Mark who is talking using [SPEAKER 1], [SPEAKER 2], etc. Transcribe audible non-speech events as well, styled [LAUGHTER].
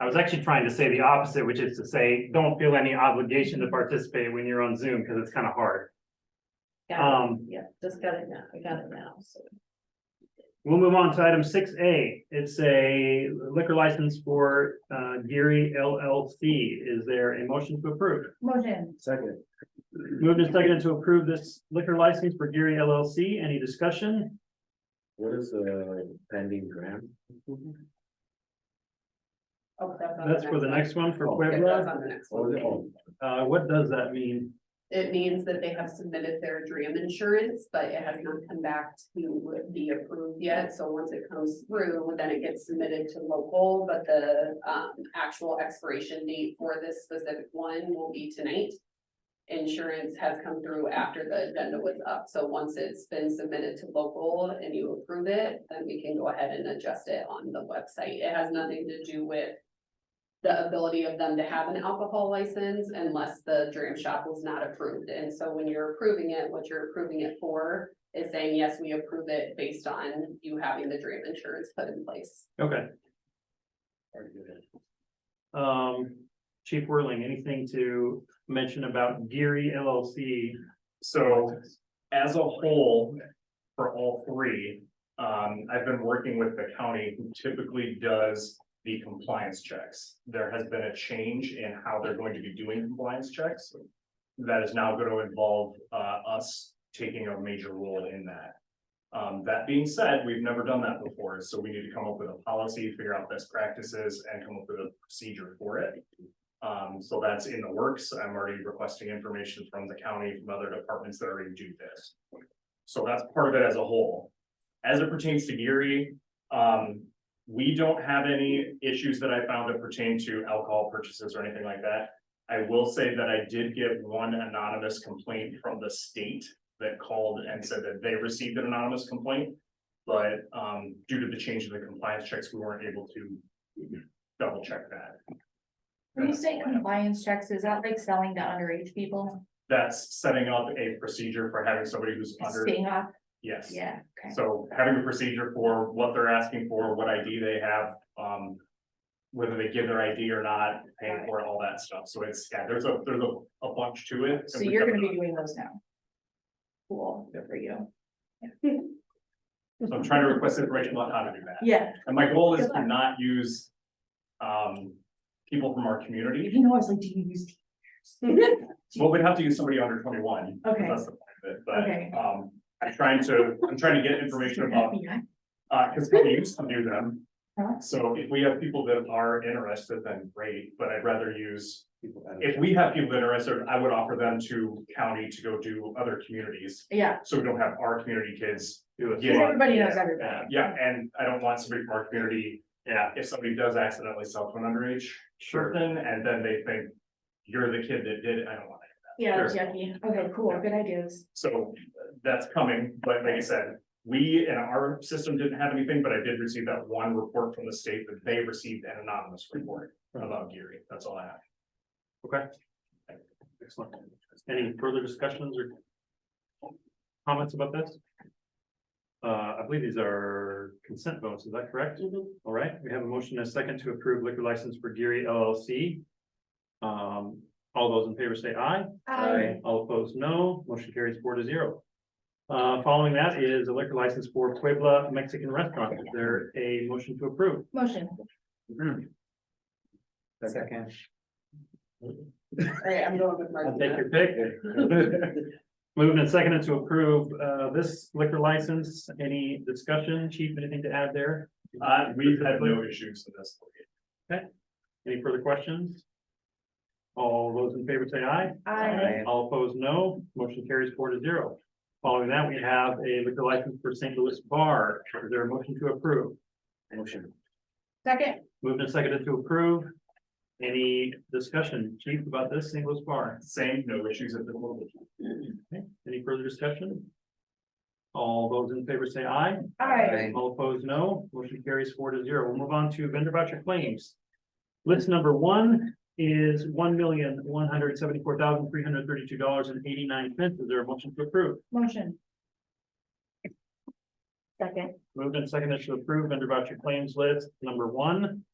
[SPEAKER 1] I was actually trying to say the opposite, which is to say, don't feel any obligation to participate when you're on Zoom, because it's kind of hard.
[SPEAKER 2] Got it.
[SPEAKER 1] Um,
[SPEAKER 2] Yeah, just got it now, I got it now, so.
[SPEAKER 1] we'll move on to item six A. It's a liquor license for uh Geary LLC. Is there a motion to approve?
[SPEAKER 3] Motion,
[SPEAKER 4] Second.
[SPEAKER 1] Moved and seconded to approve this liquor license for Geary LLC. Any discussion?
[SPEAKER 4] What is the pending grant?
[SPEAKER 2] Oh, that's on
[SPEAKER 1] That's for the next one for
[SPEAKER 2] Yeah, that's
[SPEAKER 1] Puebla.
[SPEAKER 2] on the next
[SPEAKER 4] What was it?
[SPEAKER 2] one.
[SPEAKER 4] Oh,
[SPEAKER 1] Uh, what does that mean?
[SPEAKER 2] It means that they have submitted their DRAM insurance, but it has not come back to be approved yet. So once it comes through, then it gets submitted to local, but the um actual expiration date for this specific one will be tonight. Insurance has come through after the agenda was up. So once it's been submitted to local and you approve it, then we can go ahead and adjust it on the website. It has nothing to do with the ability of them to have an alcohol license unless the dram shop was not approved. And so when you're approving it, what you're approving it for is saying, yes, we approve it based on you having the dram insurance put in place.
[SPEAKER 1] Okay,
[SPEAKER 4] very good.
[SPEAKER 1] um, Chief Whirling, anything to mention about Geary LLC?
[SPEAKER 5] So as a whole, for all three, um, I've been working with the county who typically does the compliance checks. There has been a change in how they're going to be doing compliance checks. That is now going to involve, uh, us taking a major role in that. Um, that being said, we've never done that before, so we need to come up with a policy, figure out best practices and come up with a procedure for it. Um, so that's in the works. I'm already requesting information from the county, from other departments that already do this. So that's part of it as a whole. As it pertains to Geary, um, we don't have any issues that I found that pertain to alcohol purchases or anything like that. I will say that I did get one anonymous complaint from the state that called and said that they received an anonymous complaint. But, um, due to the change in the compliance checks, we weren't able to double check that.
[SPEAKER 3] when you say compliance checks, is that like selling to underage people,
[SPEAKER 5] that's setting up a procedure for having somebody who's under,
[SPEAKER 3] staying off,
[SPEAKER 5] yes.
[SPEAKER 3] yeah, okay.
[SPEAKER 5] So having a procedure for what they're asking for, what ID they have, um. Whether they give their ID or not, paying for it, all that stuff. So it's, yeah, there's a, there's a, a bunch to it.
[SPEAKER 3] So you're gonna be doing those now. Cool, good for you.
[SPEAKER 5] So I'm trying to request information on how to do that.
[SPEAKER 3] Yeah,
[SPEAKER 5] And my goal is
[SPEAKER 3] Good
[SPEAKER 5] to
[SPEAKER 3] luck.
[SPEAKER 5] not use. Um, people from our community.
[SPEAKER 3] you know, I was like, do you [LAUGHS] use?
[SPEAKER 5] Well, we'd have to use somebody under twenty-one. 'cause
[SPEAKER 3] Okay.
[SPEAKER 5] That's the point of
[SPEAKER 3] Okay.
[SPEAKER 5] it, but, um, I'm trying to, I'm trying to get information about
[SPEAKER 3] Yeah,
[SPEAKER 5] Uh, cause we used to do them.
[SPEAKER 3] Huh?
[SPEAKER 5] So if we have people that are interested, then great, but I'd rather use,
[SPEAKER 4] People have-
[SPEAKER 5] if we have people that are interested, I would offer them to county to go do other communities.
[SPEAKER 3] Yeah,
[SPEAKER 5] So we don't have our community kids.
[SPEAKER 1] Do it.
[SPEAKER 3] 'cause
[SPEAKER 5] Yeah.
[SPEAKER 3] everybody knows
[SPEAKER 5] Uh,
[SPEAKER 3] everybody.
[SPEAKER 5] yeah, and I don't want somebody from our community,
[SPEAKER 1] Yeah,
[SPEAKER 5] if somebody does accidentally sell to an underage
[SPEAKER 1] sure.
[SPEAKER 5] person, and then they think. You're the kid that did it, I don't want it.
[SPEAKER 3] Yeah, that's yucky, okay, cool, good ideas.
[SPEAKER 5] So uh, that's coming, but like I said, we and our system didn't have anything, but I did receive that one report from the state that they received an anonymous report. about Geary, that's all I have.
[SPEAKER 1] Excellent. Any further discussions or comments about this? Uh, I believe these are consent votes, is that correct? All right, we have a motion and a second to approve liquor license for Geary LLC. Um, all those in favor say aye.
[SPEAKER 3] Um,
[SPEAKER 4] Aye.
[SPEAKER 1] All opposed, no. Motion carries four to zero. Uh, following that is a liquor license for Puebla Mexican Restaurant. Is there a motion to approve?
[SPEAKER 3] Motion,
[SPEAKER 4] Second.
[SPEAKER 2] Alright, I'm going with Mark.
[SPEAKER 1] I'll take your pick. [LAUGHS] Moving and seconded to approve, uh, this liquor license. Any discussion, chief, anything to add there?
[SPEAKER 5] Uh, we've had no issues with this.
[SPEAKER 1] Any further questions? All those in favor say aye.
[SPEAKER 3] Aye.
[SPEAKER 1] All opposed, no. Motion carries four to zero. Following that, we have a liquor license for St. Louis Bar. Is there a motion to approve?
[SPEAKER 4] Motion.
[SPEAKER 3] second,
[SPEAKER 1] Moved and seconded to approve. Any discussion, chief, about this St. Louis Bar?
[SPEAKER 5] Same, no issues at the moment.
[SPEAKER 1] Any further discussion? All those in favor say aye.
[SPEAKER 3] aye,
[SPEAKER 4] Aye.
[SPEAKER 1] All opposed, no. Motion carries four to zero. We'll move on to vendor voucher claims. List number one is one million, one hundred seventy-four thousand, three hundred thirty-two dollars and eighty-nine cents. Is there a motion to approve?
[SPEAKER 3] motion. Second.
[SPEAKER 1] Moved and seconded to approve vendor voucher claims list number one.